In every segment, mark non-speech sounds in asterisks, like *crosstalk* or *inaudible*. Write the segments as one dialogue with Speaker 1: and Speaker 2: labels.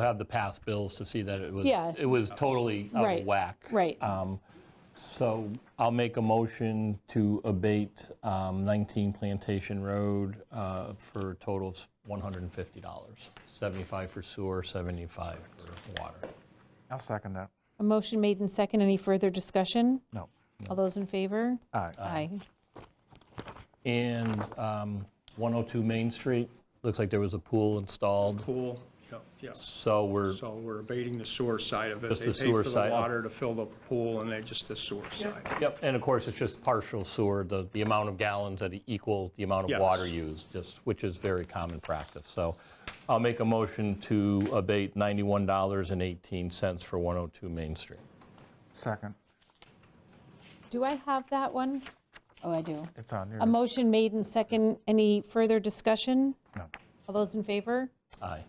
Speaker 1: have the past bills to see that it was,
Speaker 2: Yeah.
Speaker 1: it was totally out
Speaker 2: Right,
Speaker 1: of whack.
Speaker 2: right.
Speaker 1: Um, So I'll make a motion to abate um, 19 Plantation Road uh, for a total of $150, 75 for sewer, 75 for water.
Speaker 3: I'll second that.
Speaker 2: A motion made in second. Any further discussion?
Speaker 3: No.
Speaker 2: All those in favor?
Speaker 3: Aye.
Speaker 2: Aye.
Speaker 1: And um, 102 Main Street, looks like there was a pool installed,
Speaker 4: Pool, yep, yep.
Speaker 1: so we're,
Speaker 4: So we're abating the sewer side of it.
Speaker 1: Just the
Speaker 4: They
Speaker 1: sewer
Speaker 4: paid for the
Speaker 1: side, okay.
Speaker 4: water to fill the pool, and they just the sewer side.
Speaker 1: yep, and of course, it's just partial sewer, the, the amount of gallons that equal the amount of
Speaker 4: Yes.
Speaker 1: water used, just, which is very common practice. So I'll make a motion to abate $91.18 for 102 Main Street.
Speaker 3: Second.
Speaker 2: Do I have that one? Oh, I do.
Speaker 3: It's on
Speaker 2: A
Speaker 3: yours.
Speaker 2: motion made in second. Any further discussion?
Speaker 3: No.
Speaker 2: All those in favor?
Speaker 1: Aye.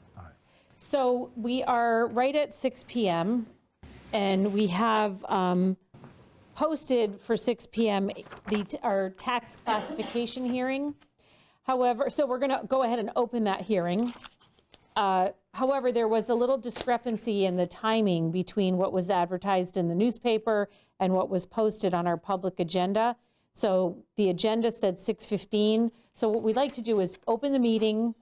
Speaker 2: So we are right at 6 PM, and we have um, posted for 6 PM the, our tax classification hearing. However, so we're going to go ahead and open that hearing. Uh, However, there was a little discrepancy in the timing between what was advertised in the newspaper and what was posted on our public agenda. So the agenda said 6:15. So what we'd like to do is open the meeting,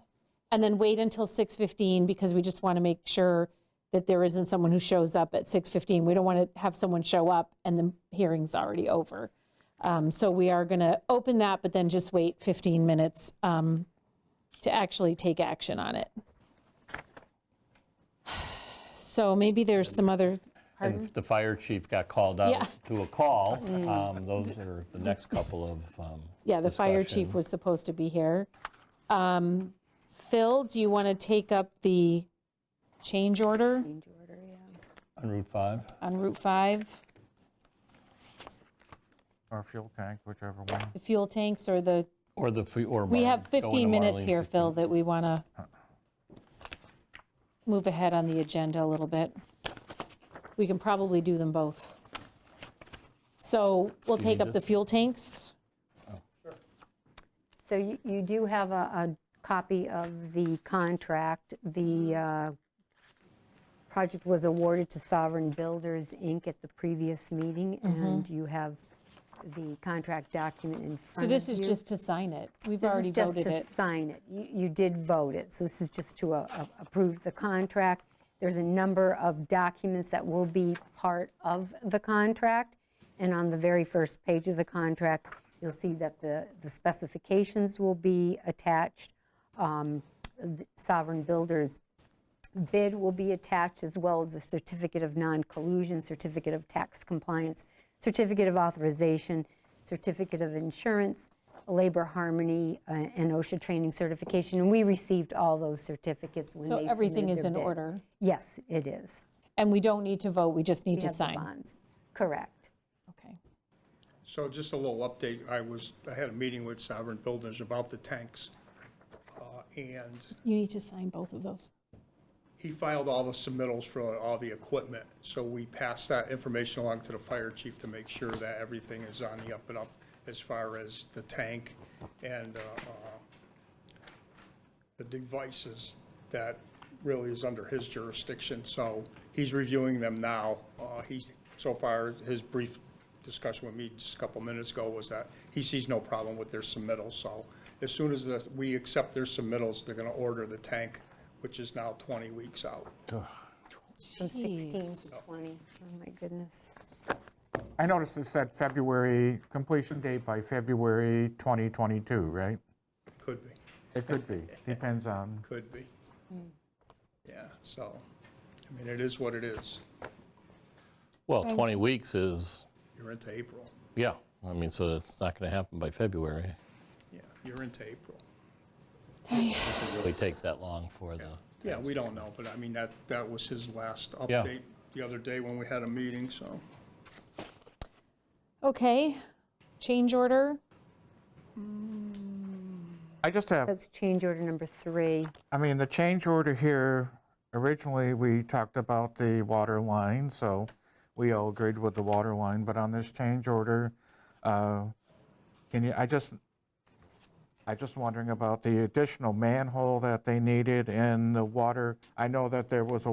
Speaker 2: and then wait until 6:15 because we just want to make sure that there isn't someone who shows up at 6:15. We don't want to have someone show up and the hearing's already over. Um, So we are going to open that, but then just wait 15 minutes um, to actually take action on it. *sighs* So maybe there's some other,
Speaker 1: And the fire chief got called
Speaker 2: Yeah. Mm.
Speaker 1: out to a
Speaker 2: *laughs*
Speaker 1: call. Um, Those are the next couple of. um,
Speaker 2: yeah, the fire
Speaker 1: discussion.
Speaker 2: chief was supposed to be here. Um, Phil, do you want to take up the change order?
Speaker 1: On Route 5.
Speaker 2: on Route 5,
Speaker 3: Or fuel tank, whichever one.
Speaker 2: the fuel tanks or the,
Speaker 1: Or the, fe- or.
Speaker 2: we
Speaker 1: Marlene.
Speaker 2: have
Speaker 1: Go into
Speaker 2: 15 minutes
Speaker 1: Marlene.
Speaker 2: here, Phil, that we want to move ahead on the agenda a little bit. We can probably do them both. So we'll take up the
Speaker 1: this?
Speaker 2: fuel tanks.
Speaker 5: So you you do have a a copy of the contract. The uh, project was awarded to Sovereign Builders, Inc. at the previous meeting,
Speaker 2: Mm-hmm.
Speaker 5: and you have the contract document in
Speaker 2: So
Speaker 5: front of you.
Speaker 2: this is just to sign it. We've
Speaker 5: This is
Speaker 2: already voted
Speaker 5: just
Speaker 2: it.
Speaker 5: to sign it. You you did vote it, so this is just to uh, uh, approve the contract. There's a number of documents that will be part of the contract, and on the very first page of the contract, you'll see that the the specifications will be attached. Um, the Sovereign Builders bid will be attached, as well as a certificate of non-collusion, certificate of tax compliance, certificate of authorization, certificate of insurance, labor harmony, uh, and OSHA training certification. And we received all those certificates when they
Speaker 2: So
Speaker 5: submitted
Speaker 2: everything is
Speaker 5: their
Speaker 2: in
Speaker 5: bid.
Speaker 2: order.
Speaker 5: Yes, it is.
Speaker 2: And we don't need to vote, we just need
Speaker 5: We
Speaker 2: to
Speaker 5: have the
Speaker 2: sign.
Speaker 5: bonds. Correct.
Speaker 2: Okay.
Speaker 4: So just a little update, I was, I had a meeting with Sovereign Builders about the tanks, uh, and
Speaker 2: You need to sign both of those.
Speaker 4: he filed all the submittals for all the equipment, so we passed that information along to the fire chief to make sure that everything is on the up and up as far as the tank and uh, uh, the devices that really is under his jurisdiction, so he's reviewing them now. Uh, He's, so far, his brief discussion with me just a couple minutes ago was that he sees no problem with their submittals, so as soon as the- we accept their submittals, they're gonna order the tank, which is now 20 weeks out.
Speaker 5: From 16
Speaker 2: Jeez.
Speaker 5: to 20. Oh, my goodness.
Speaker 3: I noticed it said February, completion date by February 2022, right?
Speaker 4: Could be,
Speaker 3: It could be, depends on,
Speaker 4: could be. Yeah, so, I mean, it is what it is.
Speaker 1: Well, 20 weeks is,
Speaker 4: You're into April.
Speaker 1: yeah, I mean, so it's not going to happen by February.
Speaker 4: Yeah, you're into April.
Speaker 1: It really takes that long for the,
Speaker 4: Yeah, we don't know, but I mean, that, that was his last
Speaker 1: Yeah.
Speaker 4: update the other day when we had a meeting, so.
Speaker 2: Okay, change order.
Speaker 3: I just have,
Speaker 5: That's change order number three.
Speaker 3: I mean, the change order here, originally, we talked about the water line, so we all agreed with the water line, but on this change order, uh, can you, I just, I just wondering about the additional manhole that they needed and the water, I know that there was a